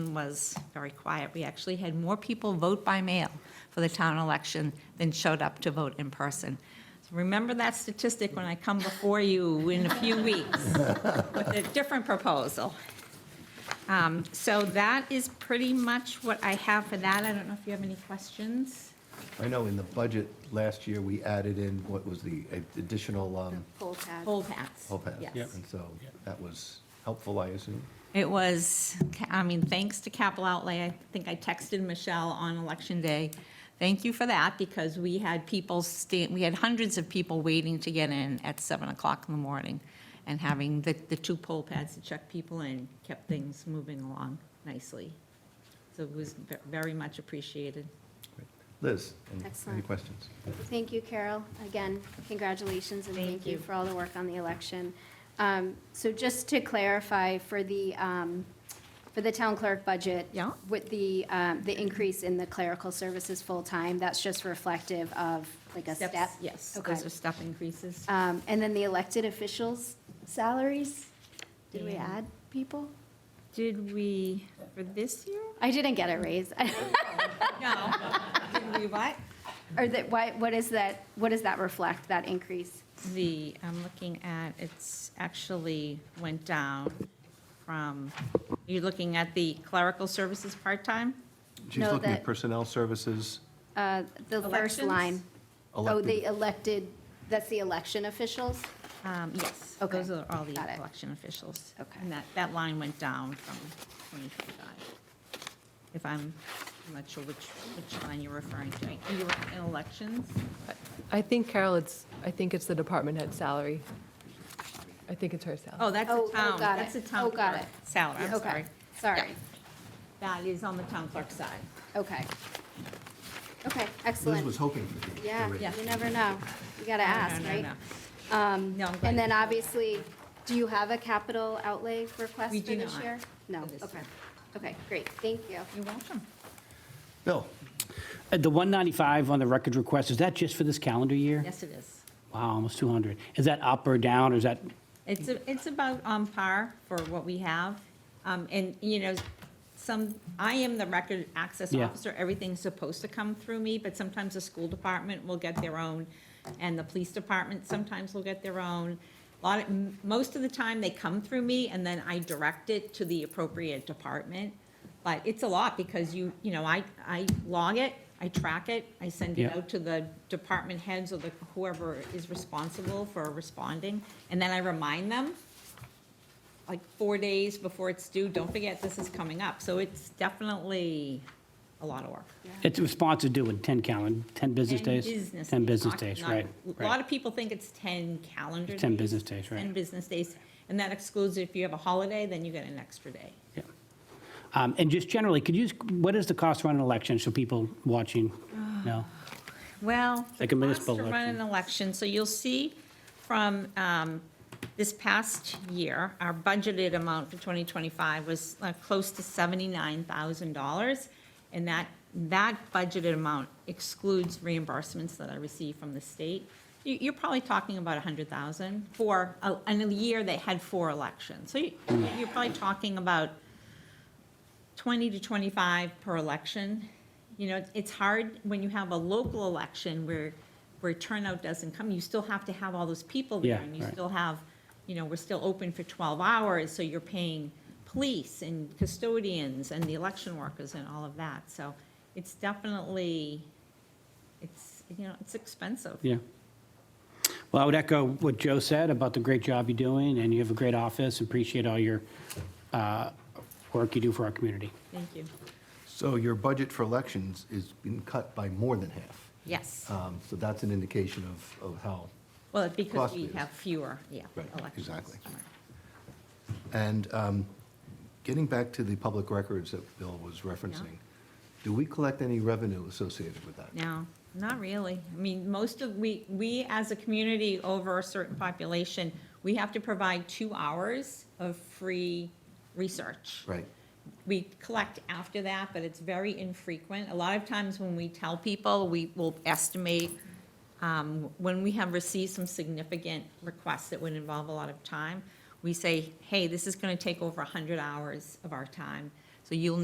election was very quiet. We actually had more people vote by mail for the town election than showed up to vote in person. So Remember that statistic when I come before you in a few weeks with a different proposal. Um, So that is pretty much what I have for that. I don't know if you have any questions? I know in the budget last year, we added in what was the additional um, Poll pad. Poll paths. help out. Yes. And so that was helpful, I assume. It was, I mean, thanks to capital outlay, I think I texted Michelle on election day. Thank you for that, because we had people sta, we had hundreds of people waiting to get in at seven o'clock in the morning. And having the, the two poll pads to check people in kept things moving along nicely. So it was ve- very much appreciated. Liz, any- any Excellent. questions? Thank you, Carol. Again, congratulations and thank you for all the work on the election. Um, So just to clarify, for the, um, for the town clerk budget. Yeah. With the, um, the increase in the clerical services full-time, that's just reflective of like a step? Steps, Yes, Okay. those are step increases. Um, And then the elected officials' salaries? Did we Yeah. add people? Did we, for this year? I didn't get a raise. No. Did we what? Or that, why, what is that, what does that reflect, that increase? The, I'm looking at, it's actually went down from, you're looking at the clerical services part-time? She's No, looking at that- personnel services, Uh, The first Elections? line. Oh, elected, the elected, that's the election officials? Um, Yes, Okay. those are all the Got it. election officials. Okay. And that, that line went down from 2025. If I'm, I'm not sure which, which line you're referring to. You were in elections? I think Carol, it's, I think it's the department head salary. I think it's her salary. Oh, that's Oh, a oh, town, got that's a it. town Oh, got clerk it. salary, I'm Okay, sorry. Sorry, That is on the town clerk side. okay. Okay, Liz excellent. was hoping for the- the Yeah, raise. Yeah. you never know. You gotta ask, No, no, right? no. Um, No, I'm glad And you then said that. obviously, do you have a capital outlay request We for do this not year? No, for this okay, year. okay, great, thank you. You're welcome. Bill, Uh, The 195 on the records request, is that just for this calendar year? Yes, it is. Wow, almost 200. Is that up or down, or is that, It's, a- it's about on par for what we have. Um, And, you know, some, I am the record access Yeah. officer, everything's supposed to come through me, but sometimes the school department will get their own, and the police department sometimes will get their own. A Lot, of- m- most of the time, they come through me, and then I direct it to the appropriate department. But it's a lot, because you, you know, I, I log it, I track it, I send it Yeah. out to the department heads or the, whoever is responsible for responding, and then I remind them, like, four days before it's due, don't forget, this is coming up. So it's definitely a lot of work. its response is due in 10 calendar, 10 business 10 days? 10 business not- days, not- right. A lot right. of people think it's 10 calendar days. 10 business days, right. 10 business days, and that excludes if you have a holiday, then you get an extra day. Yeah. Um, And just generally, could you, just- what is the cost to run an election, so people watching know? Well, the Like a cost to municipal run an election. election, so you'll see from um, this past year, our budgeted amount for 2025 was uh, close to $79,000. And that, that budgeted amount excludes reimbursements that I receive from the state. You- You're probably talking about 100,000 for, a- in a year that had four elections. So you- you're probably talking about 20 to 25 per election. You know, it's- it's hard when you have a local election where, where turnout doesn't come. You still have to have all those people there. Yeah, And you right. still have, you know, we're still open for 12 hours, so you're paying police and custodians and the election workers and all of that. So it's definitely, it's, you know, it's expensive. Yeah. Well, I would echo what Joe said about the great job you're doing, and you have a great office, appreciate all your uh, work you do for our community. Thank you. Uh, so your budget for elections is been cut by more than half. Yes. Um, So that's an indication of, of how Well, because cost we is- have fewer, yeah, Right, elections. exactly. Right. And um, getting back to the public records that Bill was referencing, do we collect any revenue associated with that? No, not really. I mean, most of, we, we as a community over a certain population, we have to provide two hours of free research. Right, We collect after that, but it's very infrequent. A lot of times when we tell people, we will estimate um, when we have received some significant requests that would involve a lot of time, we say, hey, this is going to take over 100 hours of our time, so you'll